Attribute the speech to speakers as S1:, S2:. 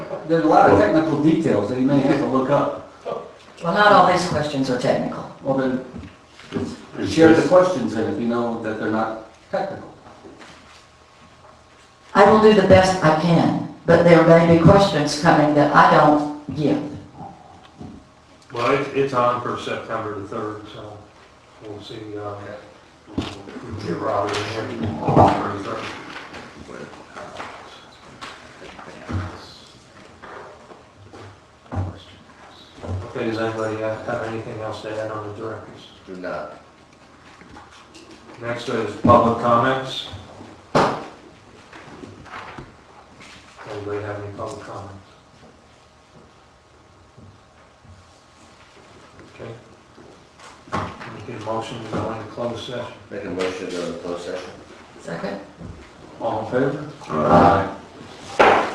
S1: of, there's a lot of technical details that you may have to look up.
S2: Well, not all these questions are technical.
S1: Well, then, share the questions in if you know that they're not technical.
S2: I will do the best I can, but there may be questions coming that I don't give.
S3: Well, it's, it's on for September the third, so we'll see, uh, we can get Robert in here on the 3rd. Okay, does anybody uh, have anything else to add on the directors?
S4: Do not.
S3: Next is public comments. Anybody have any public comments? Okay. Make a motion to go into closed session.
S4: Make a motion to go into closed session.
S2: Second?
S1: All in favor?
S4: Aye.